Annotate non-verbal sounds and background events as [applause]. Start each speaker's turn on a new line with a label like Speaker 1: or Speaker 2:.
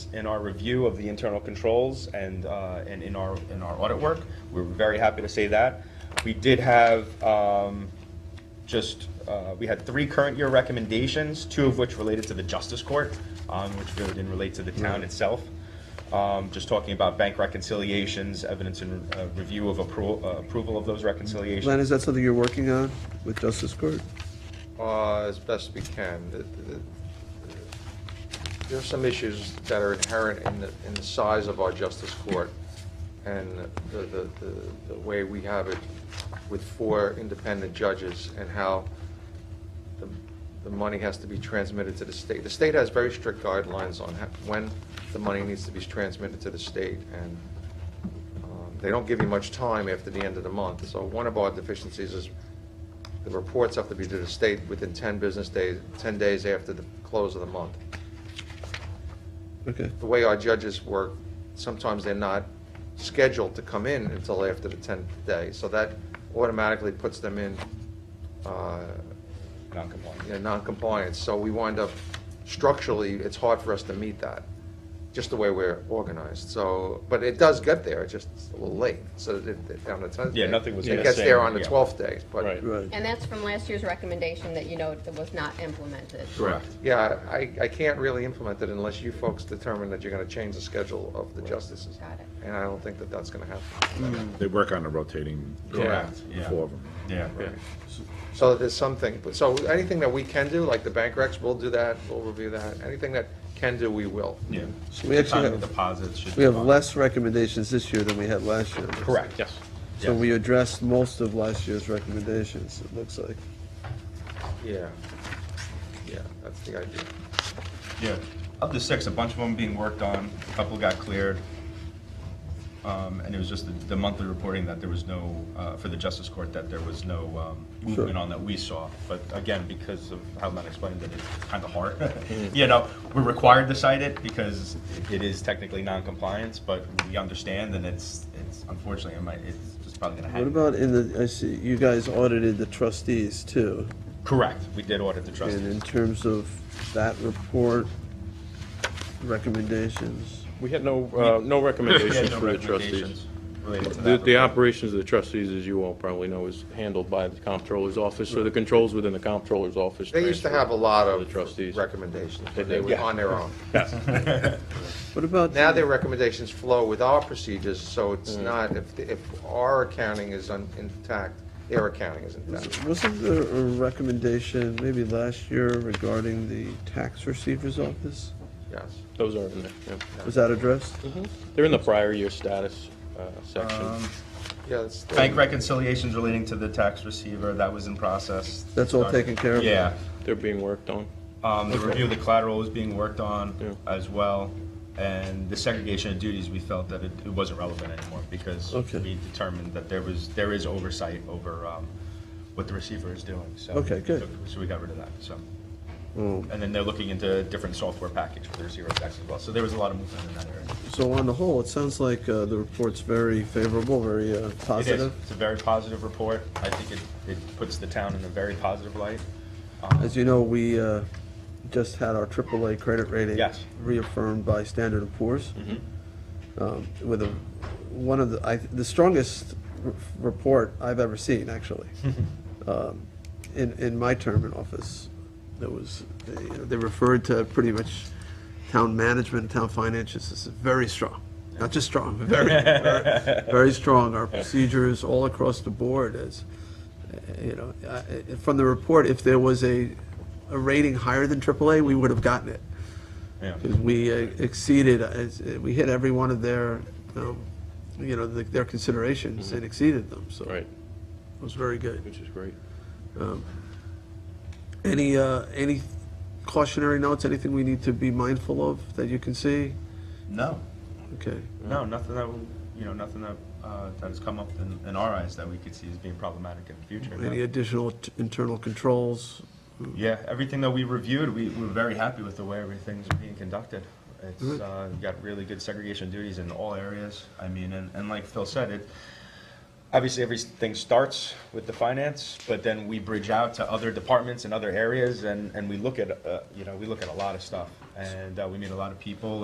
Speaker 1: in our review of the internal controls and, uh, and in our, in our audit work. We're very happy to say that. We did have, um, just, uh, we had three current year recommendations, two of which related to the Justice Court, um, which really didn't relate to the town itself. Um, Just talking about bank reconciliations, evidence and uh, review of appro- uh, approval of those reconciliations.
Speaker 2: Len, is that something you're working on with Justice Court?
Speaker 3: Uh, as best we can. The- the- the- There are some issues that are inherent in the, in the size of our justice court and the, the, the- the way we have it with four independent judges and how the, the money has to be transmitted to the state. The state has very strict guidelines on how, when the money needs to be transmitted to the state and um, They don't give you much time after the end of the month, so one of our deficiencies is the reports have to be to the state within 10 business days, 10 days after the close of the month.
Speaker 2: Okay,
Speaker 3: The way our judges work, sometimes they're not scheduled to come in until after the 10th day, so that automatically puts them in, uh,
Speaker 1: Non-compliant.
Speaker 3: you know, non-compliance, so we wind up, structurally, it's hard for us to meet that, just the way we're organized, so, but it does get there, it's just a little late, so it, it- on the tenth.
Speaker 1: Yeah, nothing was
Speaker 3: It
Speaker 1: the
Speaker 3: gets
Speaker 1: same,
Speaker 3: there on the
Speaker 1: yeah.
Speaker 3: twelfth day, but,
Speaker 1: Right.
Speaker 2: right.
Speaker 4: And that's from last year's recommendation that you know that was not implemented.
Speaker 1: Correct.
Speaker 3: yeah, I, I can't really implement it unless you folks determine that you're gonna change the schedule of the justices.
Speaker 4: Got it.
Speaker 3: And I don't think that that's gonna happen.
Speaker 5: They work on a rotating.
Speaker 1: Correct, yeah.
Speaker 5: Four of them.
Speaker 1: Yeah.
Speaker 3: So there's something, but, so anything that we can do, like the bank recs, we'll do that, we'll review that, anything that can do, we will.
Speaker 1: Yeah.
Speaker 2: So we actually
Speaker 1: Timing
Speaker 2: have-
Speaker 1: Deposits should.
Speaker 2: We have
Speaker 1: be on.
Speaker 2: less recommendations this year than we had last year.
Speaker 1: Correct, yes.
Speaker 2: So
Speaker 1: Yes.
Speaker 2: we addressed most of last year's recommendations, it looks like.
Speaker 3: Yeah, yeah, that's the idea.
Speaker 1: Yeah. Of the six, a bunch of them being worked on, a couple got cleared. Um, And it was just the- the monthly reporting that there was no, uh, for the Justice Court, that there was no um, movement on that we saw. But again, because of how Len explained it, it's kind of
Speaker 6: [laughs]
Speaker 1: hard. [laughs] You know, we're required to cite it because it is technically non-compliance, but we understand and it's, it's unfortunately, it might- it's just probably going to happen.
Speaker 2: What about in the, I see, you guys audited the trustees too.
Speaker 1: Correct. We did audit the
Speaker 2: And in
Speaker 1: trustees.
Speaker 2: terms of that report, recommendations,
Speaker 6: We had no, uh,
Speaker 1: [laughs]
Speaker 6: no
Speaker 1: We had
Speaker 6: recommendations
Speaker 1: no
Speaker 6: for the
Speaker 1: recommendations
Speaker 6: trustees.
Speaker 1: related to
Speaker 6: The,
Speaker 1: that
Speaker 6: the
Speaker 1: report.
Speaker 6: operations of the trustees, as you all probably know, is handled by the comptroller's office, so the controls within the comptroller's office.
Speaker 3: They used to
Speaker 6: transfer
Speaker 3: have a lot
Speaker 6: the
Speaker 3: of
Speaker 6: trustees.
Speaker 3: recommendations, but
Speaker 6: They
Speaker 3: they were
Speaker 6: did.
Speaker 3: on their
Speaker 6: [laughs]
Speaker 3: own.
Speaker 2: what about?
Speaker 3: Now their recommendations flow with our procedures, so it's
Speaker 6: Mm.
Speaker 3: not, if, if our accounting is un- intact, their accounting is intact.
Speaker 2: Wasn't there a recommendation maybe last year regarding the tax receiver's office?
Speaker 6: Mm-hmm.
Speaker 3: Yes,
Speaker 6: Those are in there, yeah.
Speaker 2: Was that addressed?
Speaker 6: They're in the prior year status, uh,
Speaker 1: Um,
Speaker 6: section.
Speaker 3: yes. they-
Speaker 1: Bank reconciliations relating to the tax receiver, that was in process.
Speaker 2: That's all taken care of?
Speaker 1: Yeah.
Speaker 6: They're being worked on.
Speaker 1: Um, the review of the collateral was being worked on
Speaker 6: Yeah.
Speaker 1: as well. And the segregation of duties, we felt that it, it wasn't relevant anymore because
Speaker 2: Okay.
Speaker 1: we determined that there was, there is oversight over, um, what the receiver is doing, so.
Speaker 2: Okay, good.
Speaker 1: So we got rid of that, so.
Speaker 2: Oh,
Speaker 1: And then they're looking into a different software package for the receiver tax as well. So there was a lot of movement in that area.
Speaker 2: So on the whole, it sounds like uh, the report's very favorable, very uh,
Speaker 1: It is.
Speaker 2: positive.
Speaker 1: It's a very positive report. I think it, it puts the town in a very positive light.
Speaker 2: As you know, we uh, just had our AAA credit rating
Speaker 1: Yes.
Speaker 2: reaffirmed by Standard and Poor's. Um, With a, one of the, I, the strongest r- report I've ever seen, actually. Um, In, in my term in office, there was, they they referred to pretty much town management, town finances as very strong. Not just strong, but very, very- very strong. Our procedures all across the board is, you know, I- I- from the report, if there was a, a rating higher than AAA, we would have gotten it.
Speaker 1: Yeah.
Speaker 2: 'Cause we uh, exceeded, uh, it's- uh, we hit every one of their, um, you know, the- their considerations and exceeded them, so.
Speaker 6: Right,
Speaker 2: It was very good. Um,
Speaker 6: which is great.
Speaker 2: Any, uh, any cautionary notes, anything we need to be mindful of that you can see?
Speaker 1: No,
Speaker 2: Okay.
Speaker 1: No, nothing that, will- you know, nothing that, uh, that has come up in, in our eyes that we could see as being problematic in the future. no.
Speaker 2: Any additional t- internal controls?
Speaker 1: Yeah, everything that we reviewed, we, we're very happy with the way everything's being conducted. It's,
Speaker 2: Good.
Speaker 1: uh, got really good segregation duties in all areas. I mean, and, and like Phil said, it, obviously everything starts with the finance, but then we bridge out to other departments and other areas and, and we look at, uh, you know, we look at a lot of stuff. And, uh, we meet a lot of people